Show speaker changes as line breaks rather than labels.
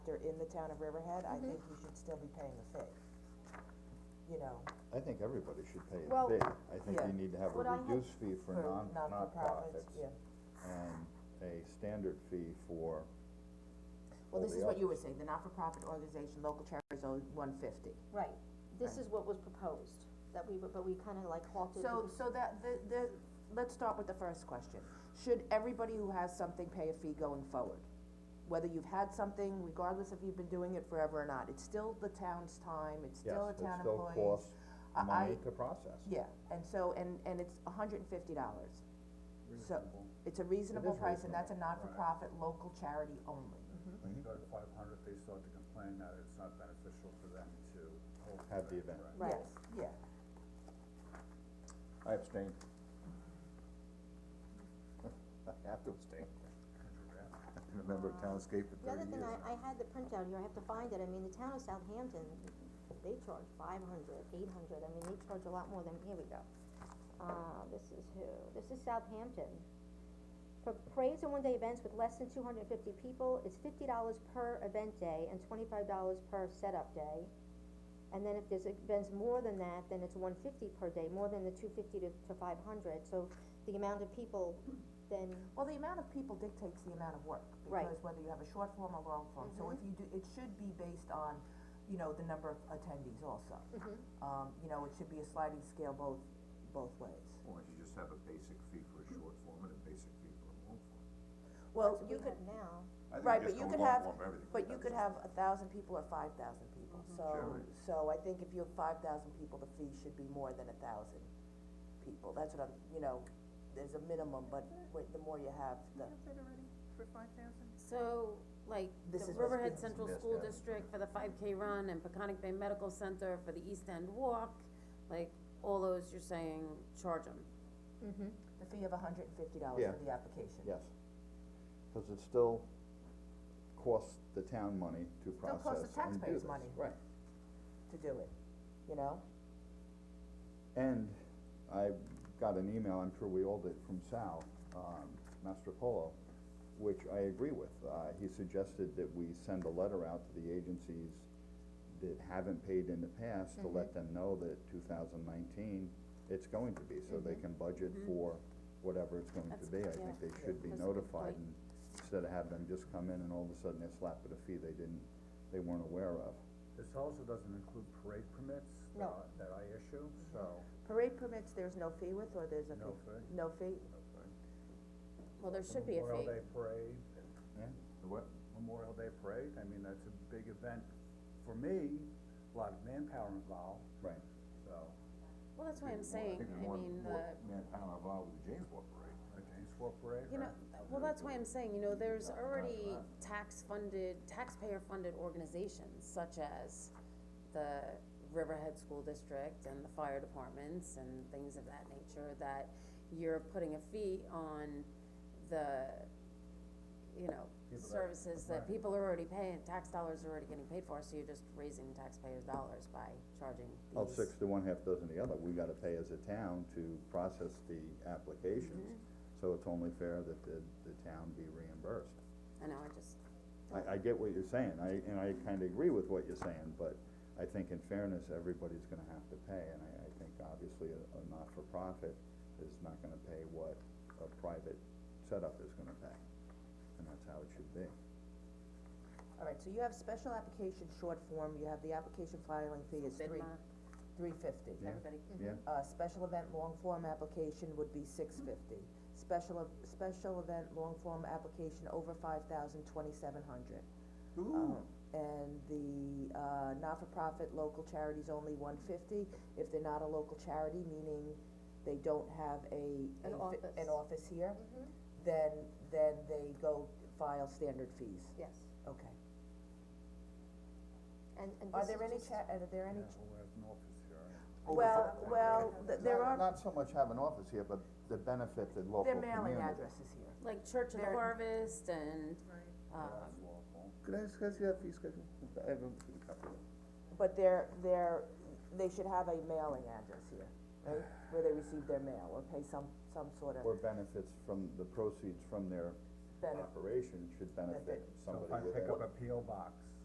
in the town of Riverhead, I
Mhm.
think you should still be paying the fee. You know,
I think everybody should pay a
Well-
fee, I think
Yeah.
you need to have
What I
a
had-
reduced fee for
for
non,
not-for-profits,
nonprofits
yeah.
and a standard fee for
Well,
all
this
the
is what
others.
you were saying, the not-for-profit organization, local charities owe one fifty.
Right, this is what was proposed, that we, were- but we kinda like halted.
So,
because-
so that, the, the, let's start with the first question. Should everybody who has something pay a fee going forward? Whether you've had something, regardless if you've been doing it forever or not, it's still the town's time, it's still the town employees.
Yes, it still costs
I-
money
I-
to process.
Yeah, and so, and, and it's hundred and fifty dollars. So, it's a reasonable
It is
price, and that's a
reasonable, right.
not-for-profit, local charity only.
When you go to five hundred, they start to complain that it's not beneficial for them to hold.
Have the event.
right?
Right.
Yes, Yeah,
I abstain. I have to abstain. I've been a member of Townscape for
The other
thirty
thing,
years.
I, I had the printout here, I have to find it, I mean, the town of Southampton, they charge five hundred, eight hundred, I mean, they charge a lot more than, here we go. Uh, this is who, this is Southampton. For praise and one-day events with less than two hundred and fifty people, it's fifty dollars per event day and twenty-five dollars per setup day. And then if there's events more than that, then it's one fifty per day, more than the two fifty to, to five hundred, so the amount of people then,
well, the amount of people dictates the amount of work,
Right.
because whether you have a short form or long form, so if you do, it should be based on, you know, the number of attendees also. Um, you know, it should be a sliding scale both, both ways.
Or you just have a basic fee for a short form and a basic fee for a long form.
Well, Oh,
that's what
you
we
could,
have now.
right, but you could have, but you could have a thousand people or five thousand people, so,
Sure.
so I think if you have five thousand people, the fee should be more than a thousand people, that's what I'm, you know, there's a minimum, but wait, the more you have, the,
So, like, the
This is what's
Riverhead
being
Central
suggested.
School District for the five K run and Peconic Bay Medical Center for the East End Walk, like, all those you're saying, charge them.
the fee of hundred and fifty dollars
Yeah.
for the application.
Yes, cause it still costs the town money to
Still
process
costs the
and do
taxpayers
this.
money.
Right,
To do it, you know,
and I got an email, I'm sure we all did, from Sal, um, Mastropolo, which I agree with. Uh, he suggested that we send a letter out to the agencies that haven't paid in the past to let
Mm-hmm.
them know that two thousand nineteen, it's going to be, so they can budget for whatever it's going to
Mm-hmm. That's-
be. I
yeah.
think they should be
That's a good
notified
point.
and instead of have them just come in and all of a sudden they're slapped with a fee they didn't, they weren't aware of.
This also doesn't include parade permits that,
No.
I- that I issue, so,
parade permits, there's no fee with, or there's a fee?
No fee.
No fee,
Well, there
the
should be a
Memorial
fee.
Day parade,
Yeah.
the what? Memorial Day parade, I mean, that's a big event for me, a lot of manpower involved,
Right.
so.
Well, that's why I'm saying, I mean, the,
manpower involved with the James War parade. The James War parade,
you know,
right.
well, that's why I'm saying, you know, there's already tax-funded, taxpayer-funded organizations such as the Riverhead School District and the fire departments and things of that nature, that you're putting a fee on the, you know,
People that-
services that
right.
people are already paying, tax dollars are already getting paid for, so you're just raising taxpayers' dollars by charging these.
Oh,
Well, six to one, half dozen the other, we gotta pay as a town to process the applications,
Mm-hmm.
so it's only fair that the, the town be reimbursed.
I know, I just,
I, I get what you're saying, I, and I kinda agree with what you're saying, but I think in fairness, everybody's gonna have to pay, and I, I think obviously a, a not-for-profit is not gonna pay what a private setup is gonna pay, and that's how it should be.
alright, so you have special application short form, you have the application filing fee is three,
FINMA,
three fifty.
Yeah.
everybody,
Yeah,
Uh, special event long form application would be six fifty. Special, ev- special event long form application over five thousand, twenty-seven hundred. Um, and the, uh, not-for-profit local charities only one fifty, if they're not a local charity, meaning they don't have a.
An
a fi-
office.
An office here, then, then they go file standard fees,
Yes,
okay.
and, and
Are
this is
there any
just-
cha- are there
Yeah,
any,
well, we have an office here.
well, well, th- there
not,
are,
not so much have an office here, but the benefit that local
their
community.
mailing addresses here.
like Church of the
They're-
Harvest and, um,
That's lawful.
Could I discuss your fee schedule? I have a copy of it.
But they're, they're, they should have a mailing address here, right, where they receive their mail or pay some, some sort of
Or benefits from, the proceeds from their
benefit.
operation should benefit
Benefit.
So
somebody
if I
with
pick
that.
up a P O box,